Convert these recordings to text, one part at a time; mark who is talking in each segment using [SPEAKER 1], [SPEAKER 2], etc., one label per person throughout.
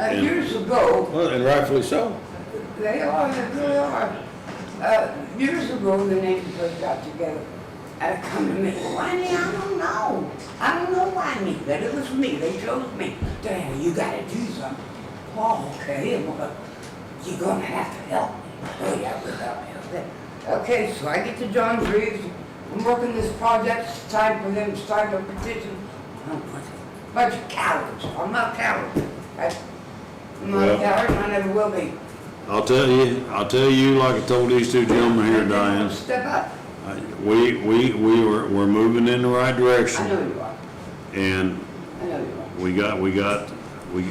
[SPEAKER 1] uh, years ago,
[SPEAKER 2] Well, and rightfully so.
[SPEAKER 1] They are, they really are. Uh, years ago, the neighbors first got together. I come to me, why me? I don't know. I don't know why me, but it was me. They chose me. Damn, you gotta do something. Oh, okay, well, you're gonna have to help me. Oh, yeah, we'll help you. Okay. Okay, so I get to John Reeves. I'm working this project, it's time for them to start a petition. I'm a bunch of cowards. I'm not cowards. I'm not a
[SPEAKER 2] Well-
[SPEAKER 1] coward, and I never will be.
[SPEAKER 2] I'll tell you, I'll tell you like I told these two gentlemen here, Diane,
[SPEAKER 1] Step up.
[SPEAKER 2] I- we, we, we were, we're moving in the right
[SPEAKER 1] I
[SPEAKER 2] direction.
[SPEAKER 1] know you are.
[SPEAKER 2] And
[SPEAKER 1] I know you are.
[SPEAKER 2] we got, we got, we,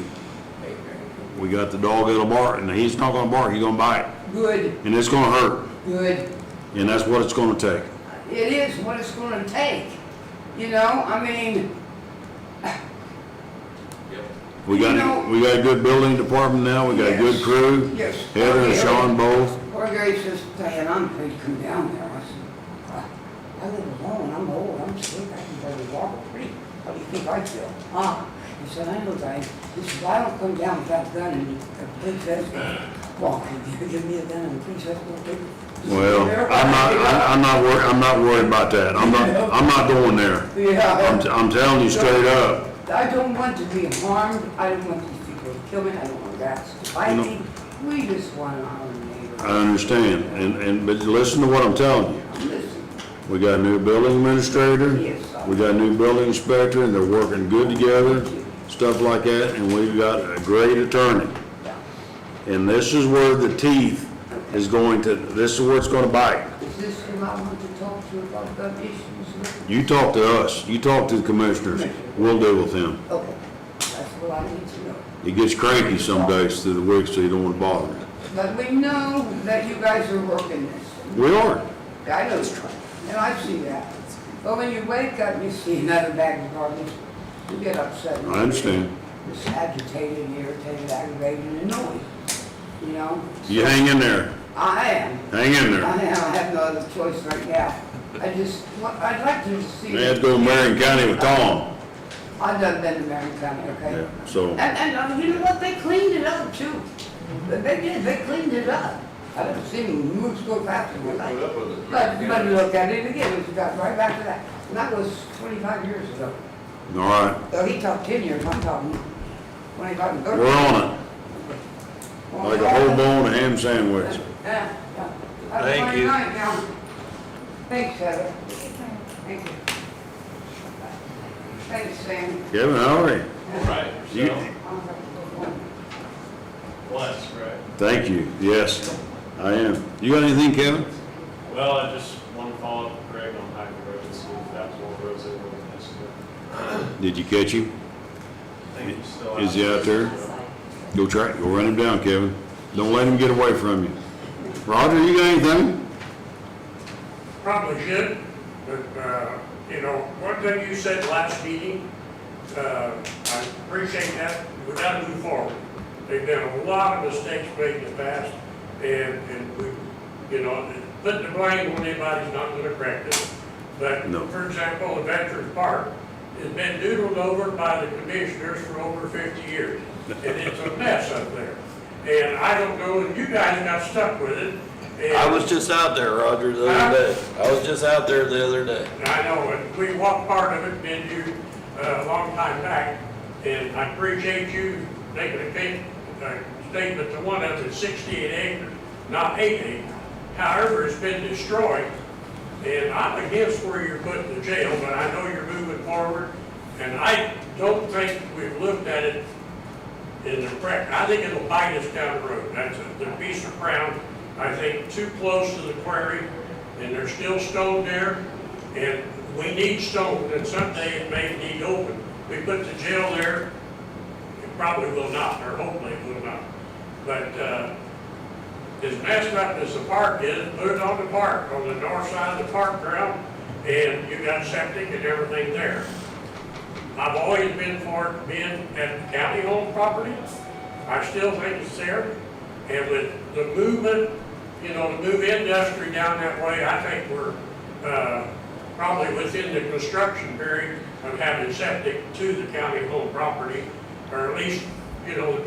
[SPEAKER 2] we got the dog that'll bark, and he's not gonna bark, he's gonna bite,
[SPEAKER 1] Good,
[SPEAKER 2] and it's gonna hurt,
[SPEAKER 1] good.
[SPEAKER 2] and that's what it's gonna take.
[SPEAKER 1] It is what it's gonna take, you know? I mean,
[SPEAKER 2] We got, a- we got a good building department now, we got a good crew,
[SPEAKER 1] yes.
[SPEAKER 2] Heather and
[SPEAKER 1] Okay,
[SPEAKER 2] Sean both.
[SPEAKER 1] Poor Gary says, Diane, I'm afraid to come down there. I said, I I live alone, I'm old, I'm sick, I can barely walk or breathe. How do you think I feel? Ah, he said, I know, Diane. He said, I don't come down without a gun and a big vest. Well, can you give me a gun and a big vest?
[SPEAKER 2] Well, I'm not, I- I'm not worried, I'm not worried about that, I'm not, I'm not going there.
[SPEAKER 1] Yeah.
[SPEAKER 2] I'm, I'm telling you straight up.
[SPEAKER 1] I don't want to be harmed, I don't want these people to kill me, I don't want rats to bite
[SPEAKER 2] You know-
[SPEAKER 1] me. We just want our neighbor.
[SPEAKER 2] I understand, and, and, but listen to what I'm telling you.
[SPEAKER 1] Listen,
[SPEAKER 2] We got a new building administrator.
[SPEAKER 1] Yes, sir.
[SPEAKER 2] We got a new building inspector, and they're working good together,
[SPEAKER 1] Thank you.
[SPEAKER 2] stuff like that, and we've got a great attorney.
[SPEAKER 1] yeah,
[SPEAKER 2] And this is where the teeth is going to, this is where it's gonna bite.
[SPEAKER 1] is this who I want to talk to about the issues? with?
[SPEAKER 2] You talk to us, you talk to the commissioners, we'll deal with him.
[SPEAKER 1] Okay, that's what I need to know.
[SPEAKER 2] He gets cranky some days through the week, so you don't wanna bother him.
[SPEAKER 1] But we know that you guys are working this.
[SPEAKER 2] We are.
[SPEAKER 1] I know it's trying, and I see that. But when you wake up, and you see another bag of garbage, you get upset.
[SPEAKER 2] I understand.
[SPEAKER 1] Just agitated, irritated, aggravated, and annoyed, you know?
[SPEAKER 2] You hang in there,
[SPEAKER 1] I am.
[SPEAKER 2] hang in
[SPEAKER 1] I
[SPEAKER 2] there.
[SPEAKER 1] have, I have no other choice right now. I just, wa- I'd like to see.
[SPEAKER 2] They had to go to Marion County with Tom.
[SPEAKER 1] I've done been to Marion County, okay?
[SPEAKER 2] Yeah, So,
[SPEAKER 1] And, and, uh, you know what, they cleaned it up too. They they did, they cleaned it up. I didn't see them moves go faster than that. But, but look at it again, it got right back to that. And that was twenty-five years ago.
[SPEAKER 2] all right,
[SPEAKER 1] So he talked ten years, I'm talking twenty-five and thirty.
[SPEAKER 2] we're on it. Like a whole bone and ham sandwich.
[SPEAKER 1] Yeah, yeah. That's
[SPEAKER 3] Thank
[SPEAKER 1] one
[SPEAKER 3] you.
[SPEAKER 1] night now. Thanks, Heather. Thank you. Thanks, Sam.
[SPEAKER 2] Kevin, how are you?
[SPEAKER 3] Right,
[SPEAKER 2] You-
[SPEAKER 3] so, once, right.
[SPEAKER 2] Thank you, yes, I am. You got anything, Kevin?
[SPEAKER 3] Well, I just want to follow up with Greg on Hyde Road and see if that's what Rose is going to
[SPEAKER 2] Did you catch him?
[SPEAKER 3] Thank you still.
[SPEAKER 2] Is he out there? Go try, go run him down, Kevin. Don't let him get away from you. Roger, you got anything?
[SPEAKER 4] probably should, but, uh, you know, one thing you said last meeting, uh, I appreciate that, we gotta move forward. There've been a lot of mistakes made in the past, and, and we, you know, putting the blame on anybody's not gonna correct it. But,
[SPEAKER 2] No.
[SPEAKER 4] for example, the Veterans Park has been doodled over by the commissioners for over fifty years, and it's a mess up there. And I don't know, and you guys got stuck with it. and-
[SPEAKER 5] I was just out there, Roger, the other day. I was just out there the other day.
[SPEAKER 4] And I know, and we walked part of it, been you, uh, a long time back, and I appreciate you making a big, uh, statement to one of the sixty-eight acres, not eighty. However, it's been destroyed, and I'm against where you're putting the jail, but I know you're moving forward, and I don't think we've looked at it in the correct, I think it'll bite us down the road. That's a, the piece of ground, I think, too close to the quarry, and there's still stone there, and we need stone, and someday it may need open. We put the jail there, it probably will not, or hopefully it will not. But, uh, as messed up as the park is, put it on the park, on the north side of the park ground, and you got septic and everything there. I've always been for it being at county-owned property. I still think it's there. And with the movement, you know, to move industry down that way, I think we're, uh, probably within the construction period of having septic to the county-owned property, or at least, you know, the